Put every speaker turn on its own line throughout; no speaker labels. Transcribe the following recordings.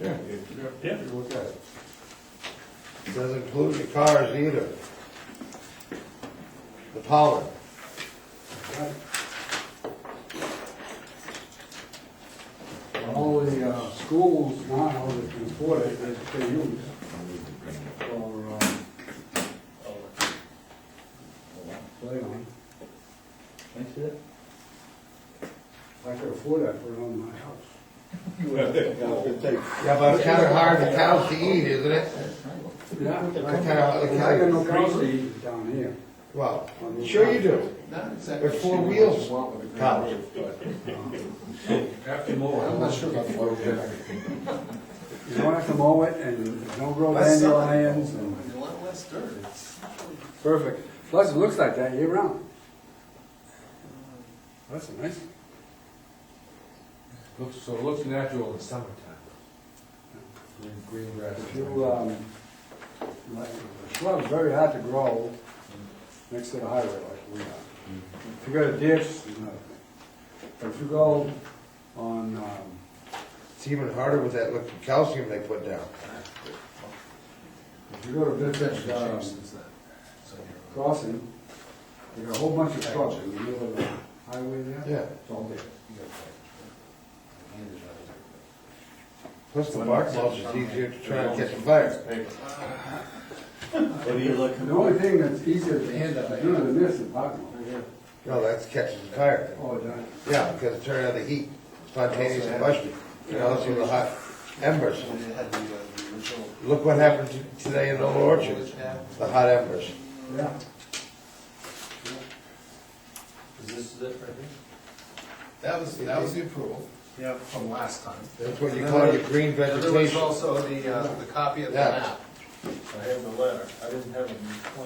Yeah.
Yeah.
You Look at it. Doesn't include the cars either. The power.
All the uh, schools now that can afford it, they they use for, uh, play on. I could afford that for it on my house.
Yeah, but it's kinda hard for cows to eat, isn't it?
Yeah.
I got- I got-
I got no cows to eat down here.
Well, sure you do.
Not exactly.
They're four wheels, cows.
After more.
I'm not sure about the road.
You don't have to mow it and there's no road annual lands and,
A lot less dirt. It's-
perfect. Plus, it looks like that year round. That's a nice,
Looks, so it looks natural in the summertime. Green- Green grass.
if you, um, like, the shrub's very hard to grow next to the highway like we are. If you got a ditch, it's another thing. But if you go on, um,
It's even harder with that little calcium they put down.
if you go to
It's
Vintage,
changed
um,
since then. So you're-
crossing, you got a whole bunch of shrubs in the middle of the highway there.
Yeah.
It's all there.
you gotta fight. Hand it out.
Plus the bark mulch is easier to try and catch a fire.
What are you looking
The only thing that's easier to
Hand up, I
to do than this is parking.
No, that's catching fire.
Oh, done.
Yeah, because it turned out the heat, spontaneous combustion. You know, see the hot embers.
And it had the, uh, the original.
Look what happened to- today in Old Orchard, the hot embers.
Yeah.
Is this it right here?
That was, that was the approval.
Yep.
From last time.
That's what you call your green
And there was
vegetation.
also the, uh, the copy of the
Yeah.
map.
I have the letter, I didn't have it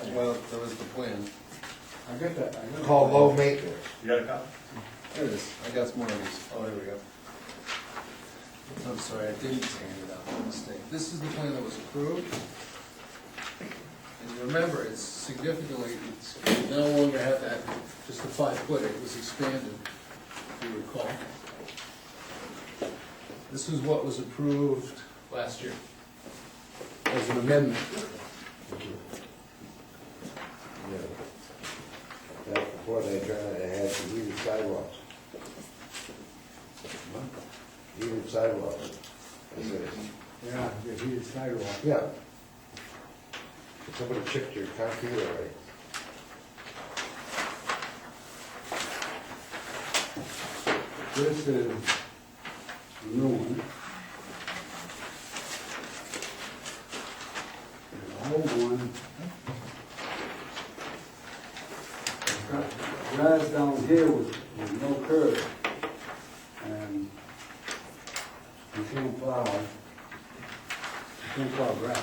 in
Well, there was the plan.
I got that, I got
Called low maintenance.
You got a copy?
There it is. I got some more of these. Oh, there we go. I'm sorry, I didn't hand it out. My mistake. This is the plan that was approved. And remember, it's significantly, it's you no longer have that, just the five foot. It was expanded, if you recall. This is what was approved last year as an amendment.
That's before they turned it, they had the heated sidewalks. Heated sidewalks. They said,
it. Yeah, the heated sidewalk.
Yeah. Somebody chipped your concrete already.
This is the new one. And The old one. It's got Grass down here with, with no curb. And you can't plow. You can't plow grass.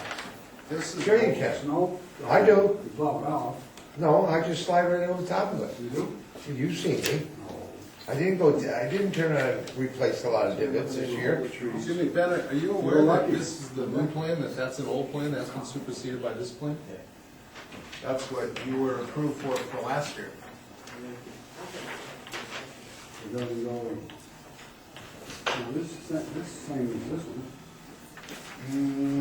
This is.
Sure you can.
Snow?
I do.
You plow it off.
No, I just slide right over the top of it.
You do?
You see me.
No.
I didn't go, I didn't turn on, replace a lot of divots this year.
Excuse me, Ben, are you aware that this is the new plan, that that's an old plan, that's been superseded by this plan?
Yeah.
That's what you were approved for, for last year.
It doesn't go in. Now, this, is- this same as this one.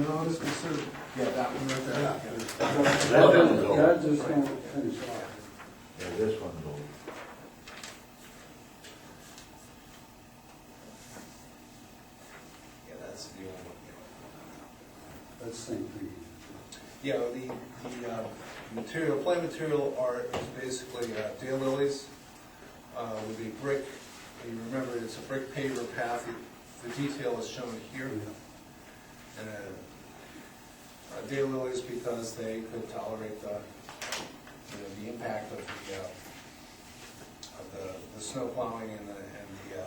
No, this was sort of, yeah, that one right there.
That
doesn't go.
That just don't finish off.
Yeah, this one's old.
Yeah, that's the old one.
That's the same thing.
Yeah, the, the, uh, material, plant material art is basically uh, daylilies, uh, with the brick, you remember, it's a brick paver path, the detail is shown here. And, uh, uh, daylilies because they could tolerate the, you know, the impact of the, uh, of the, the snow plowing and the, and the, uh,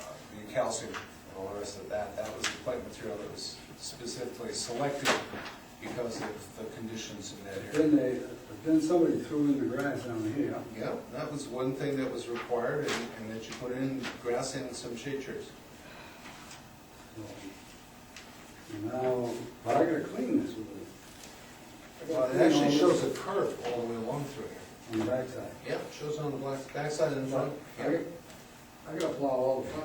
uh, the calcium and all the rest of that. That was the plant material that was specifically selected because of the conditions in that area.
Then they, then somebody threw in the grass down here.
Yeah, that was one thing that was required, and, and that you put in grass and some shade trees.
And Now, but I gotta clean this with it,
Well, it actually shows a curve all the way along through here.
on the backside.
Yeah, it shows on the black, backside and the front.
I gotta plow all the time.